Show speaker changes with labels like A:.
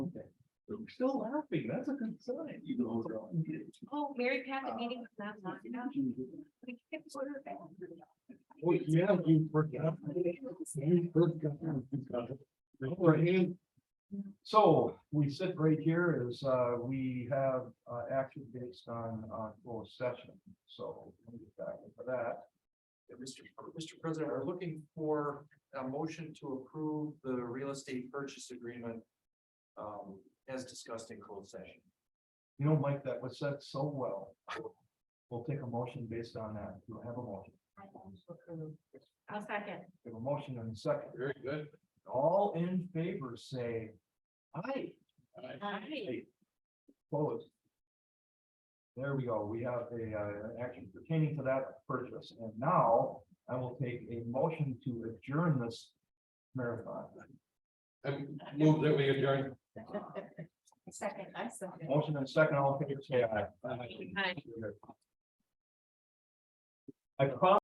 A: still laughing, that's a good sign. You know.
B: Oh, Mary Pat, the meeting was not long enough. We can put her back.
A: Well, yeah, you forgot. You forgot. All right. So we sit right here is, uh, we have, uh, action based on, uh, closed session, so we'll get back into that.
C: Yeah, Mr. Mr. President, are looking for a motion to approve the real estate purchase agreement. Um, as discussed in closed session.
A: You know, Mike, that was said so well. We'll take a motion based on that. You'll have a motion.
B: I'll second.
A: We have a motion and a second.
C: Very good.
A: All in favor say aye.
B: Aye.
A: Opposed? There we go. We have a, uh, an action pertaining to that purchase. And now I will take a motion to adjourn this marathon.
D: Move that we adjourn.
B: Second, I second.
A: Motion and second, all in favor say aye.
B: Aye.
A: I promise